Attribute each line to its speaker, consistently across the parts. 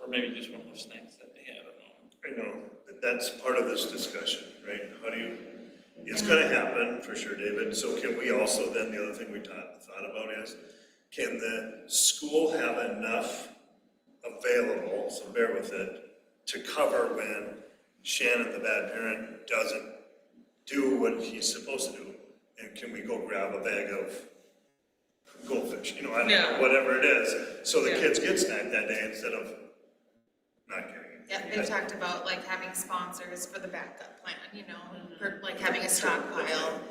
Speaker 1: or maybe just one of those things that they have at home.
Speaker 2: I know, but that's part of this discussion, right? How do you, it's gonna happen for sure, David, so can we also, then the other thing we thought, thought about is, can the school have enough available, so bear with it, to cover when Shannon, the bad parent, doesn't do what he's supposed to do? And can we go grab a bag of goldfish, you know, I don't know,
Speaker 3: Yeah.
Speaker 2: whatever it is, so the
Speaker 3: Yeah.
Speaker 2: kids get snacked that day instead of not getting it.
Speaker 4: Yeah,
Speaker 2: I-
Speaker 4: they've talked about like having sponsors for the backup plan, you know, for like having a stockpile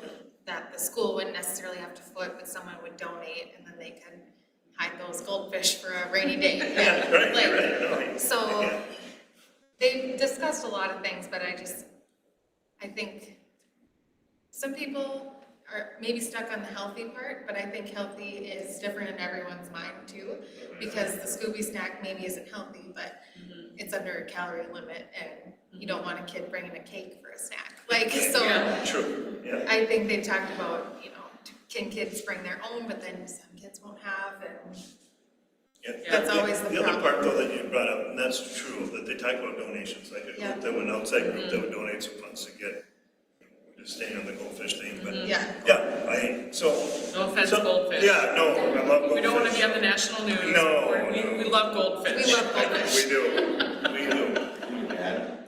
Speaker 4: that the school wouldn't necessarily have to foot, but someone would donate and then they can hide those goldfish for a rainy day.
Speaker 2: Yeah, right,
Speaker 4: Like,
Speaker 2: right, no, you-
Speaker 4: So-
Speaker 2: yeah.
Speaker 4: They discussed a lot of things, but I just, I think some people are maybe stuck on the healthy part, but I think healthy is different in everyone's mind too. Because the Scooby snack maybe isn't healthy, but it's under a calorie limit and you don't want a kid bringing a cake for a snack. Like, so
Speaker 3: Yeah.
Speaker 2: True, yeah,
Speaker 4: I think they talked about, you know, can kids bring their own, but then some kids won't have and
Speaker 2: yeah.
Speaker 4: That's always the
Speaker 2: The other part
Speaker 4: problem.
Speaker 2: though that you brought up, and that's true, that they talk about donations, like a
Speaker 4: Yeah.
Speaker 2: group that went outside group that would
Speaker 3: Mm-hmm.
Speaker 2: donate some funds to get, just staying on the goldfish thing, but, yeah,
Speaker 4: yeah.
Speaker 2: I, so.
Speaker 3: No offense,
Speaker 2: so-
Speaker 3: Mm-hmm. goldfish.
Speaker 2: Yeah, no, I love goldfish.
Speaker 3: We don't wanna be on the national news.
Speaker 2: No,
Speaker 3: We're-
Speaker 2: no.
Speaker 3: We, we love goldfish.
Speaker 4: We love goldfish.
Speaker 2: We do, we do.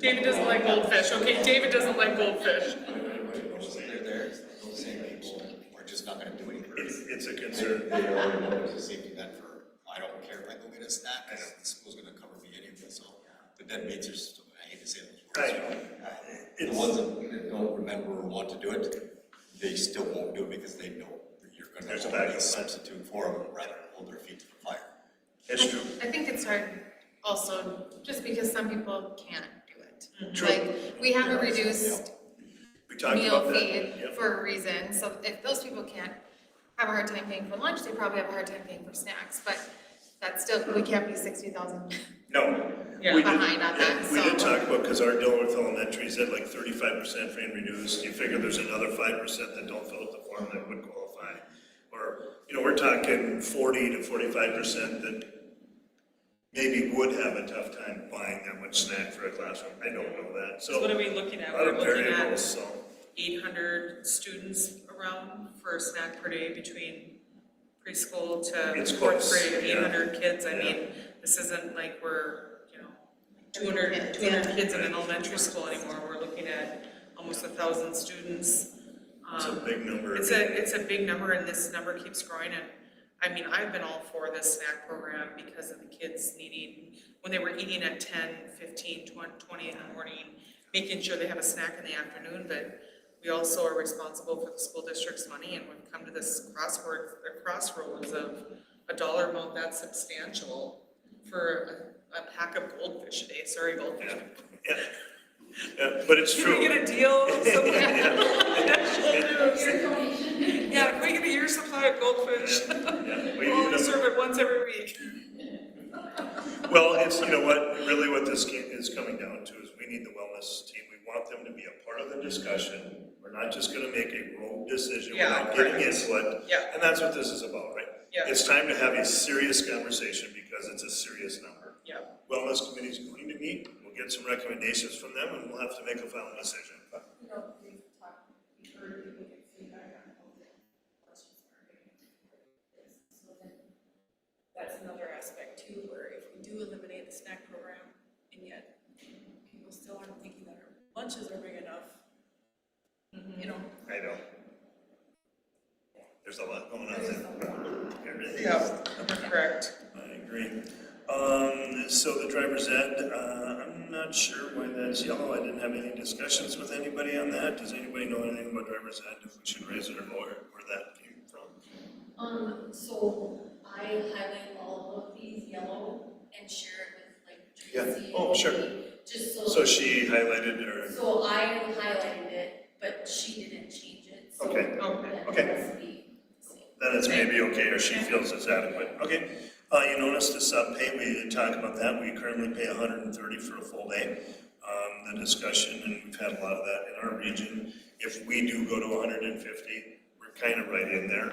Speaker 3: David doesn't like goldfish, okay, David doesn't like goldfish.
Speaker 5: They're there, it's those same people, we're just not gonna do anything.
Speaker 2: It's, it's a concern,
Speaker 5: They already know there's a safety net for, I don't care if I go get a snack, 'cause the school's gonna cover me anyway, so. The dead mates are, still- I hate to say those words.
Speaker 2: I know.
Speaker 5: The
Speaker 2: It's-
Speaker 5: ones that don't remember or want to do it, they still won't do it because they know that you're gonna
Speaker 2: There's a
Speaker 5: always
Speaker 2: backup.
Speaker 5: substitute for them, rather than hold their feet to the fire.
Speaker 2: it's true,
Speaker 4: I think it's hard also, just because some people can't do it.
Speaker 2: True.
Speaker 4: Like, we have a reduced
Speaker 2: we talked Mm-hmm.
Speaker 4: meal
Speaker 2: about that,
Speaker 4: fee
Speaker 2: yeah,
Speaker 4: for a reason, so if those people can't have a hard time paying for lunch, they probably have a hard time paying for snacks, but that's still, we can't be sixty thousand.
Speaker 2: no.
Speaker 3: Yeah.
Speaker 2: we did-
Speaker 4: Behind on that,
Speaker 2: yeah, We did
Speaker 4: so-
Speaker 2: talk about, because our Dilworth Elementary is at like thirty-five percent free and reduced, you figure there's another five percent that don't fill out the form that would qualify. Or, you know, we're talking forty to forty-five percent that maybe would have a tough time buying that much snack for a classroom, I don't know that, so.
Speaker 3: So what are we looking
Speaker 2: a
Speaker 3: at?
Speaker 2: lot
Speaker 3: We're
Speaker 2: of
Speaker 3: looking
Speaker 2: variables,
Speaker 3: at
Speaker 2: so,
Speaker 3: eight hundred students around for a snack per day between preschool to
Speaker 2: It's
Speaker 3: fourth
Speaker 2: close,
Speaker 3: grade, eight
Speaker 2: yeah.
Speaker 3: hundred kids, I
Speaker 2: Yeah.
Speaker 3: mean, this isn't like we're, you know, 200
Speaker 4: Yeah.
Speaker 3: 200 kids in an elementary school anymore, we're looking at almost a thousand students.
Speaker 2: it's a
Speaker 3: Um,
Speaker 2: big number.
Speaker 3: It's a, it's a big number and this number keeps growing and, I mean, I've been all for this snack program because of the kids needing, when they were eating at 10, 15, 20 in the morning, making sure they have a snack in the afternoon, but we also are responsible for the school district's money and we've come to this crossword, or crossroads of a dollar amount that's substantial for a, a pack of goldfish a day, sorry goldfish.
Speaker 2: Yeah, Yeah, but it's
Speaker 3: Can we
Speaker 2: true,
Speaker 3: get a deal? Something-
Speaker 2: yeah,
Speaker 3: Yeah, can we get a year's supply of goldfish?
Speaker 2: yeah, we
Speaker 3: We
Speaker 2: need
Speaker 3: only
Speaker 2: them.
Speaker 3: serve it once every week.
Speaker 2: Well, it's, you know what, really what this ca- is coming down to is we need the wellness team, we want them to be a part of the discussion. We're not just gonna make a rogue decision
Speaker 3: Yeah,
Speaker 2: without getting
Speaker 3: correct.
Speaker 2: input.
Speaker 3: Yeah.
Speaker 2: And that's what this is about, right?
Speaker 3: Yeah.
Speaker 2: It's time to have a serious conversation because it's a serious number.
Speaker 3: Yeah.
Speaker 2: Wellness committee's going to meet, we'll get some recommendations from them and we'll have to make a final decision.
Speaker 6: you know, we talk, we heard people get feedback on how the questions are. being asked. So then, that's another aspect too, where if we do eliminate the snack program, and yet people still aren't thinking that our lunches are big enough, you know,
Speaker 2: I know. There's a lot going on
Speaker 6: there's a
Speaker 2: there.
Speaker 6: lot.
Speaker 2: There really is.
Speaker 3: Yeah, correct.
Speaker 2: I agree. Um, so the driver's ed, uh, I'm not sure why that's yellow. I didn't have any discussions with anybody on that. Does anybody know anything about driver's ed, if we should raise it or lower, it, where that came from?
Speaker 7: Um, so I highlight all of these yellow and share it
Speaker 2: Yeah.
Speaker 7: with like Tracy.
Speaker 2: Oh, sure.
Speaker 7: Just so,
Speaker 2: So she highlighted her,
Speaker 7: so I highlighted it, but she didn't change it, so.
Speaker 2: Okay.
Speaker 7: that
Speaker 2: Okay.
Speaker 7: must be the same.
Speaker 2: that is maybe okay, or she feels it's adequate. Okay, uh, you noticed the sub pay, we didn't talk about that. We currently pay hundred and thirty for a full day. Um, the discussion, and we've had a lot of that in our region. If we do go to hundred and fifty, we're kind of right in there,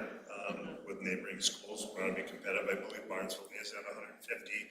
Speaker 2: um, with neighboring schools. We want to be competitive. I believe Barnesville is at hundred and fifty.